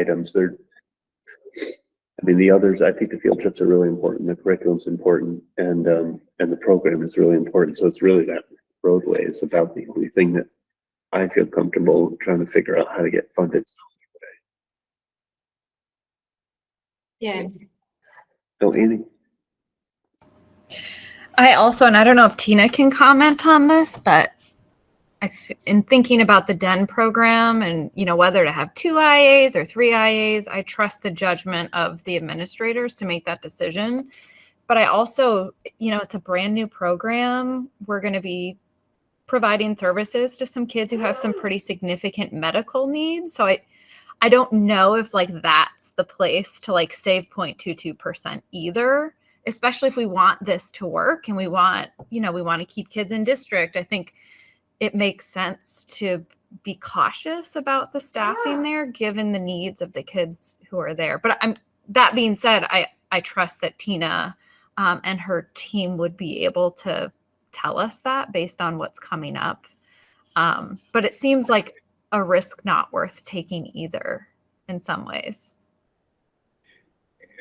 items. They're, I mean, the others, I think the field trips are really important, the curriculum's important, and, um, and the program is really important. So it's really that roadway is about the only thing that I feel comfortable trying to figure out how to get funded. Yeah. So Annie, I also, and I don't know if Tina can comment on this, but I, th- in thinking about the DEN program and, you know, whether to have two IAs or three IAs, I trust the judgment of the administrators to make that decision. But I also, you know, it's a brand new program. We're going to be providing services to some kids who have some pretty significant medical needs. So I, I don't know if like that's the place to like save 0.22% either especially if we want this to work and we want, you know, we want to keep kids in district, I think it makes sense to be cautious about the staffing there, given the needs of the kids who are there. But I'm, that being said, I, I trust that Tina um, and her team would be able to tell us that based on what's coming up. Um, but it seems like a risk not worth taking either in some ways.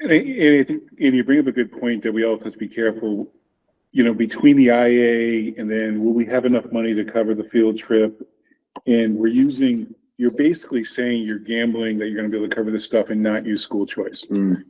And I, and I think, Andy, you bring up a good point that we also have to be careful, you know, between the IA and then will we have enough money to cover the field trip? And we're using, you're basically saying you're gambling that you're gonna be able to cover this stuff and not use school choice. Mm,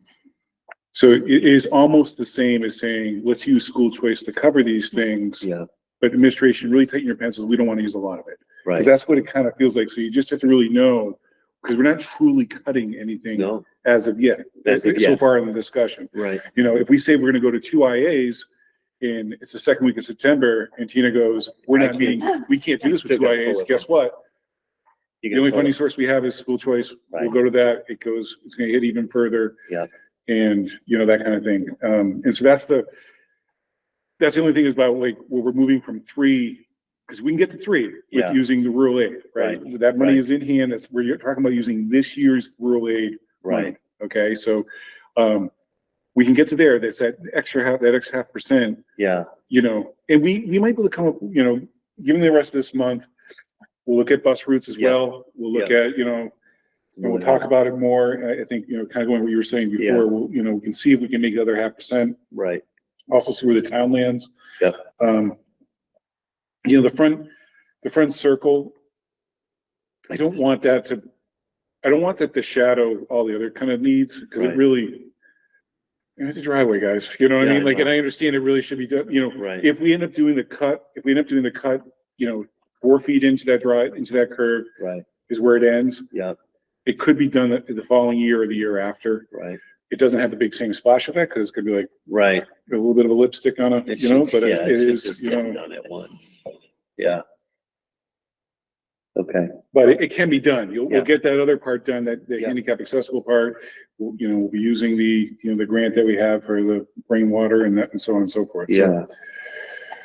So it is almost the same as saying, let's use school choice to cover these things, yeah, but administration, really tighten your pencils, we don't wanna use a lot of it. right. Cause that's what it kind of feels like. So you just have to really know, cause we're not truly cutting anything No, as of yet, As of so yet. far in the discussion. right. you know, if we say we're gonna go to two IAs and it's the second week of September and Tina goes, we're I not meeting, we can't do this with Still two gotta pull IAs, it. guess what? You The can only pull funding it. source we have is school choice. We'll Right. go to that. It goes, it's gonna hit even further. Yeah. And, you know, that kind of thing. Um, and so that's the, that's the only thing is about like, where we're moving from three, because we can get to three with Yeah. using the rural aid, right? That money Right. is in hand. That's, we're talking about using this year's rural aid Right, Okay, so, um, we can get to there, that's that extra half, that extra half percent, yeah, you know, and we, we might be able to come up, you know, given the rest of this month, we'll look at bus routes as Yeah. well, we'll look at, you know, and we'll talk about it more, And I, I think, you know, kind of going what you were saying Yeah. before, we'll, you know, we can see if we can make the other half percent, right, also see where the town lands. Yeah. Um, you know, the front, the front circle, I don't want that to, I don't want that to shadow all the other kind of needs, because it Right. really, you know, it's a driveway, guys, you know what I Yeah, I mean? Like, know. and I understand it really should be, done. you know, right, if we end up doing the cut, if we end up doing the cut, you know, four feet into that drive, into that curve right, is where it ends. yeah, It could be done the, the following year or the year after. right, It doesn't have the big same splash effect, because it's gonna be like, right. a little bit of a lipstick on it, It you know, should- but yeah, it it should is, just you get know, Done at once, yeah. Okay, but it, it can be done. You'll, Yeah. we'll get that other part done, that, the Yeah. handicap accessible part. We'll, you know, we'll be using the, you know, the grant that we have for the rainwater and that, and so on and so forth. So, yeah.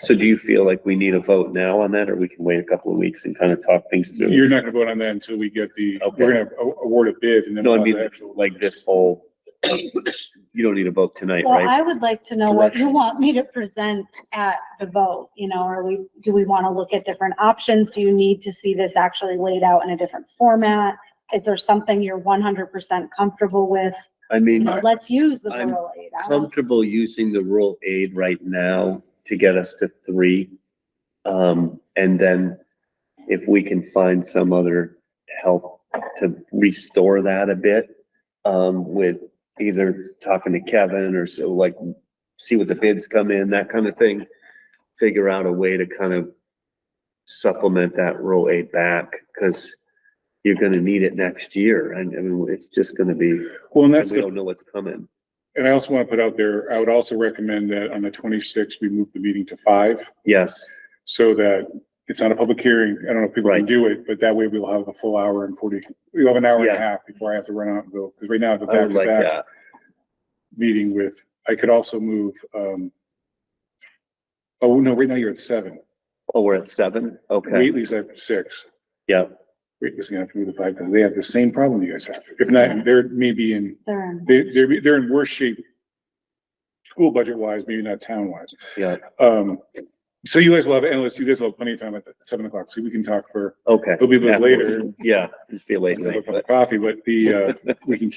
So do you feel like we need a vote now on that, or we can wait a couple of weeks and kind of talk things through? You're not gonna vote on that until we get the, Okay. we're gonna a- award a bid and then. No, I we'll have mean, the actual- Like this whole, you don't need a vote tonight, Well, right? I would like to know what you Direction. want me to present at the vote, you know, are we, do we want to look at different options? Do you need to see this actually laid out in a different format? Is there something you're one hundred percent comfortable with? I You mean, know, let's use the I'm rural aid. I don't- comfortable using the rural aid right now to get us to three. Um, and then if we can find some other help to restore that a bit, um, with either talking to Kevin or so like, see what the bids come in, that kind of thing. Figure out a way to kind of supplement that rural aid back, cause you're gonna need it next year. And I mean, it's just gonna be, Well, and and that's, we the- don't know what's coming. and I also want to put out there, I would also recommend that on the twenty-sixth, we move the meeting to five. Yes, so that it's not a public hearing. I don't know if people can Right. do it, but that way we'll have a full hour and forty, we'll have an hour and Yeah. a half before I have to run out and go. Because right now I have a I would Oh, like uh, back-to-back that. meeting with, I could also move, um, oh, no, right now you're at seven. Oh, we're at seven? Okay, Waitley's at six. yeah, Waitley's gonna have to move to five because they have the same problem you guys have. If not, they're maybe in, They're in- they, they're, they're in worse shape. School budget wise, maybe not town wise. yeah, Um, So you guys will have endless, you guys will have plenty of time at seven o'clock, so we can talk for, Okay. it'll be a bit later. Yeah, just be a late have a night, cup but. of Coffee, but the, uh, we can